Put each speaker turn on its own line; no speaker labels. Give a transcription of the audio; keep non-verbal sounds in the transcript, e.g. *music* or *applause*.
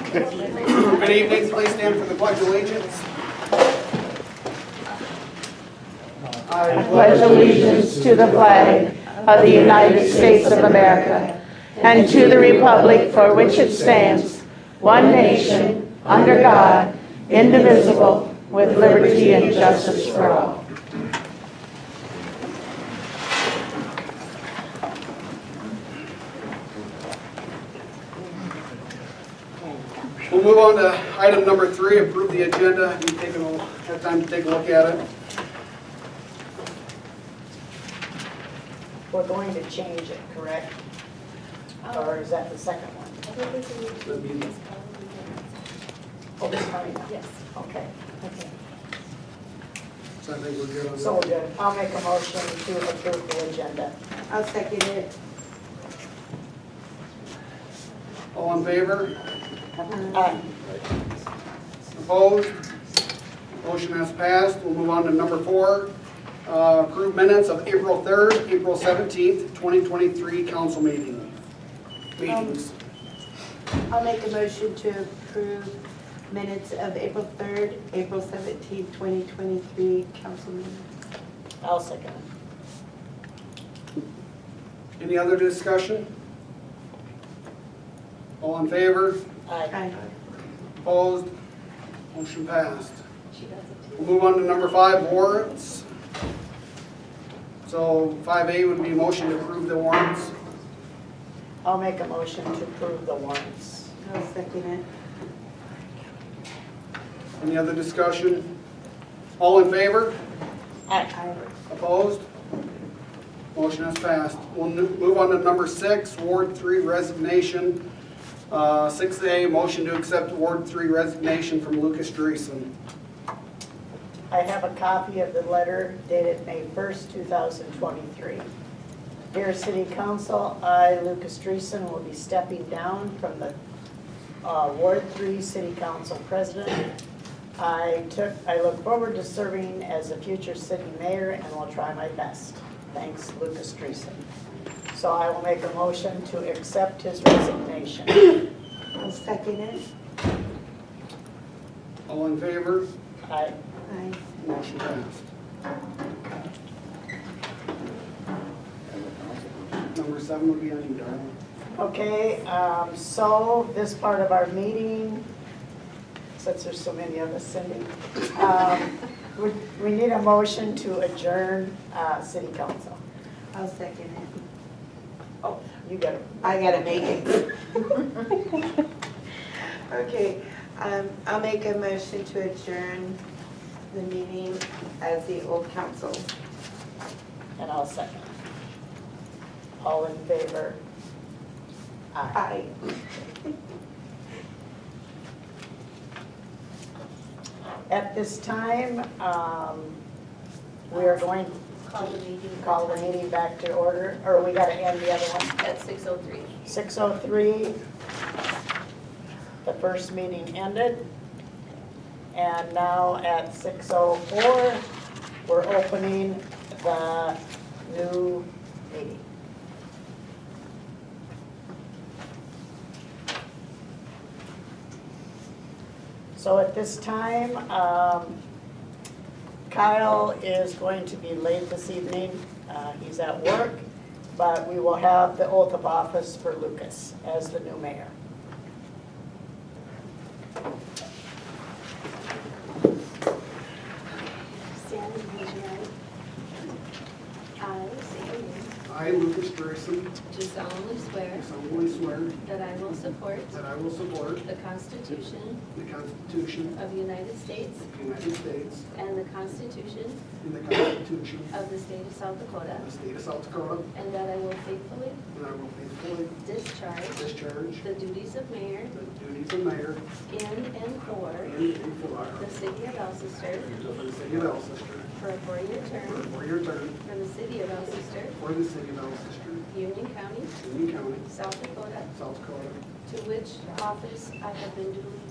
Good evening, please stand for the pledge of allegiance.
I pledge allegiance to the flag of the United States of America and to the republic for which it stands, one nation, under God, indivisible, with liberty and justice for all.
We'll move on to item number three, approve the agenda. You've taken, a- had time to take a look at it.
We're going to change it, correct? Or is that the second one? Oh, it's coming up.
Yes.
Okay, okay.
So I think we're good on
So we're
that.
good. I'll make a motion to approve the agenda.
I'll second it.
All in favor?
Aye.
Opposed? Motion has passed. We'll move on to number four, uh, approve minutes of April 3rd, April 17th, 2023 council meeting. Meetings.
I'll make a motion to approve minutes of April 3rd, April 17th, 2023 council meeting.
I'll second it.
Any other discussion? All in favor?
Aye.
Aye.
Opposed? Motion passed. We'll move on to number five, warrants. So 5A would be motion to approve the warrants.
I'll make a motion to approve the warrants.
I'll second it.
Any other discussion? All in favor?
Aye.
Aye.
Opposed? Motion has passed. We'll nu- move on to number six, Ward Three resignation. Uh, 6A, motion to accept Ward Three resignation from Lucas Dreeson.
I have a copy of the letter dated May 1st, 2023. Dear City Council, I, Lucas Dreessen, will be stepping down from the uh, Ward 3 City Council President. I took, I look forward to serving as a future city mayor and will try my best. Thanks, Lucas Dreessen. So I will make a motion to accept his resignation.
I'll second it.
All in favor?
I,
Aye.
Motion passed. Number seven would be on you, Darrell.
Okay, um, so this part of our meeting, since there's so many of us, Cindy, um, we we need a motion to adjourn uh, city council.
I'll second it.
Oh, you got it.
I gotta make it. *laughs* Okay, um, I'll make a motion to adjourn the meeting as the old council.
And I'll second. All in favor? Aye.
Aye.
At this time, um, we are going
Call the meeting
to call the meeting back to order, or we got to end the other one?
at 6:03.
6:03, the first meeting ended. And now at 6:04, we're opening the new meeting. So at this time, um, Kyle is going to be late this evening. Uh, He's at work, but we will have the oath of office for Lucas as the new mayor.
Stand and raise your hand. I say your name.
I, Lucas Dreessen,
Do solemnly swear
do solemnly swear
that I will support
that I will support
the Constitution
the Constitution
of the United States
of the United States
and the Constitution
and the Constitution
of the State of South Dakota,
of the State of South Dakota,
and that I will faithfully
and I will faithfully
discharge
discharge
the duties of mayor
the duties of mayor
in and for
and in for
the city of Alcester
for the city of Alcester
for a four-year
for a
term
four-year term
for the city of Alcester,
for the city of Alcester,
Union County,
Union County,
South Dakota,
South Dakota,
to which office I have been duly